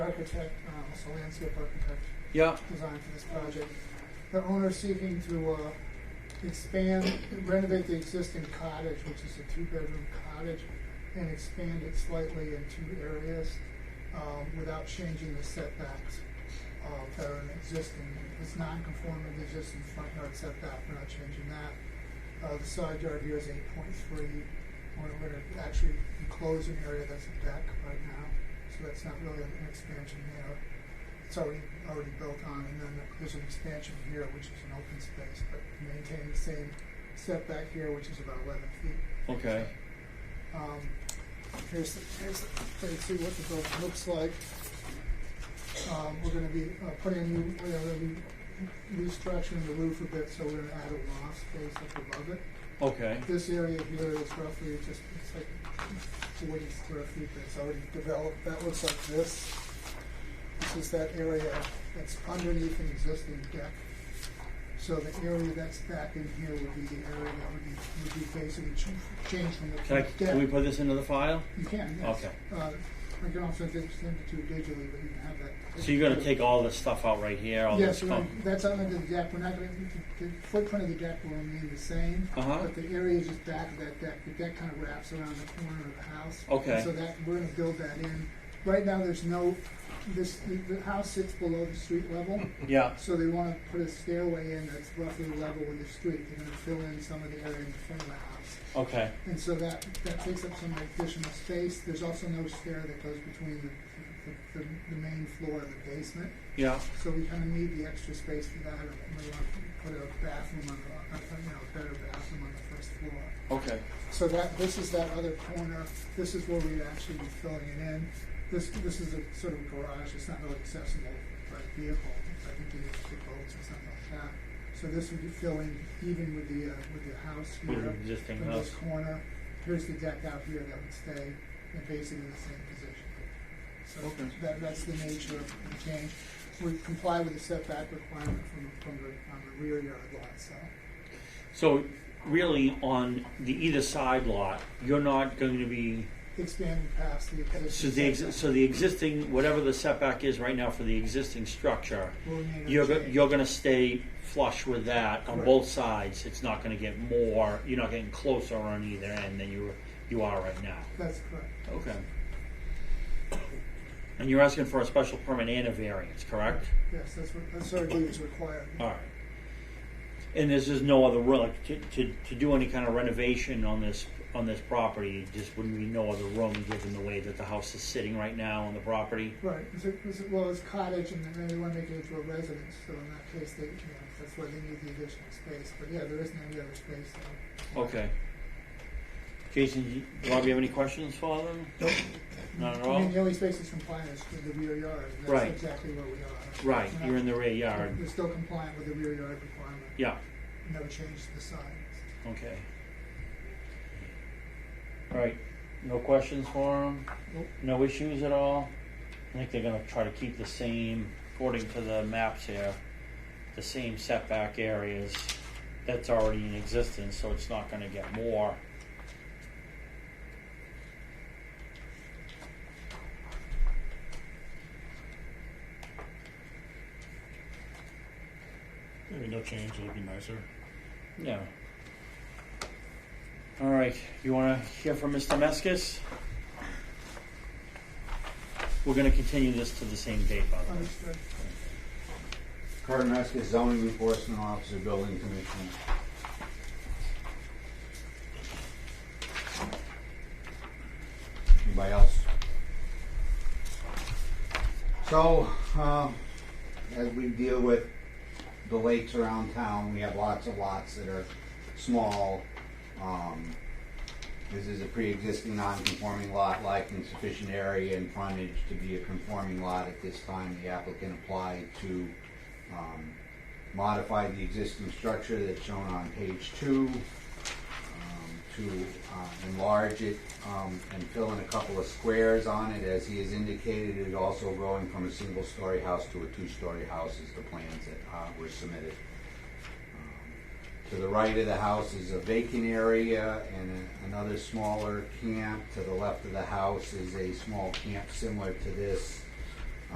architect, uh, also landscape architect, Yeah. design for this project. The owner's seeking to uh, expand, renovate the existing cottage, which is a two-bedroom cottage, and expand it slightly in two areas um, without changing the setbacks uh, that are in existing. It's non-conforming to existing front yard setback, we're not changing that. Uh, The side yard here is eight point three. We're going to actually enclose an area that's a deck right now, so that's not really an expansion there it's already, already built on, and then there's an expansion here, which is an open space, but maintain the same setback here, which is about eleven feet. Okay. Um, here's, the- here's, the- let's see what the building looks like. Um, we're gonna be, uh, putting in, new- we're gonna be restructuring the roof a bit, so we're gonna add a loft space up above it. Okay. This area here is roughly just, it's like forty square feet, but it's already developed, that looks like this. This is that area that's underneath an existing deck. So the area that's back in here would be the area that would be, would be basically ch- changed from Can, I, the can we deck. put this into the file? You can, yes. Okay. Uh, I can also send it send it to you digitally, but you can have that. So you're gonna take all this stuff out right here, all Yes, this we're stuff. gonna- that's under the deck, we're not gonna, the the footprint of the deck will remain the same. Uh-huh. But the area just back of that deck, the deck kind of wraps around the corner of the house. Okay. And So that, we're gonna build that in. Right now, there's no, this, the, the house sits below the street level, Yeah. so they wanna put a stairway in that's roughly level with the street. They're gonna fill in some of the area in front of the house. Okay. And so that, that takes up some additional space. There's also no stair that goes between the, the, the, the main floor and the basement. Yeah. So we kind of need the extra space for that, or we want to put a bathroom on the, a- you know, a better bathroom on the first floor. Okay. So that, this is that other corner, this is where we'd actually be filling it in. This, this is a sort of garage, it's not really accessible by vehicle, I think they use the boats or something like that. So this would be filling even with the, uh, with the house With the here. existing from this house. corner, here's the deck out here that would stay in basically the same position. So Okay. that, that's the nature of the change. We comply with the setback requirement from, from the, on the rear yard lot, so. So really, on the either side lot, you're not going to be. Expanding past the existing. So the ex- setback. so the existing whatever the setback is right now for the existing structure, will remain you're go- unchanged. you're going to stay flush with that on Correct. both sides. It's not going to get more. You're not getting closer on either end than you you are right now. That's correct. Okay. And you're asking for a special permit and a variance, correct? Yes, that's what, that's what I believe is required. All right. And this is no other room, like, to, to, to do any kind of renovation on this, on this property, just wouldn't be no other room, given the way that the house is sitting right now on the property? Right, is it, is it, well, it's cottage and then they want to make it into a residence, so in that case, they, you know, that's why they need the additional space. But yeah, there isn't any other space there. Okay. Jason, do you- Rob, you have any questions for them? Nope. Not at I all? mean, the only space that's compliant is with the rear yard, and Right. that's exactly where we are. Right, you're in the rear yard, We're still compliant with the rear yard requirement, yeah, no change to the signs. okay. All right, no questions for them? Nope. No issues at all? I think they're gonna try to keep the same, according to the maps here, the same setback areas that's already in existence, so it's not gonna get more. Maybe no change, it'll be nicer. No. All right, you wanna hear from Mr. Meskis? We're gonna continue this to the same date, by the way. Understood. Carter Maskis, zoning enforcement officer, building commissioner. Anybody else? So, um, as we deal with the lakes around town, we have lots of lots that are small. Um, This is a pre-existing non-conforming lot, like insufficient area and frontage to be a conforming lot at this time. The applicant applied to um, modify the existing structure that's shown on page two, um, to uh, enlarge it um, and fill in a couple of squares on it. As he has indicated, it is also growing from a single-story house to a two-story house is the plans that uh, were submitted. Um, To the right of the house is a vacant area and a- another smaller camp. To the left of the house is a small camp similar to this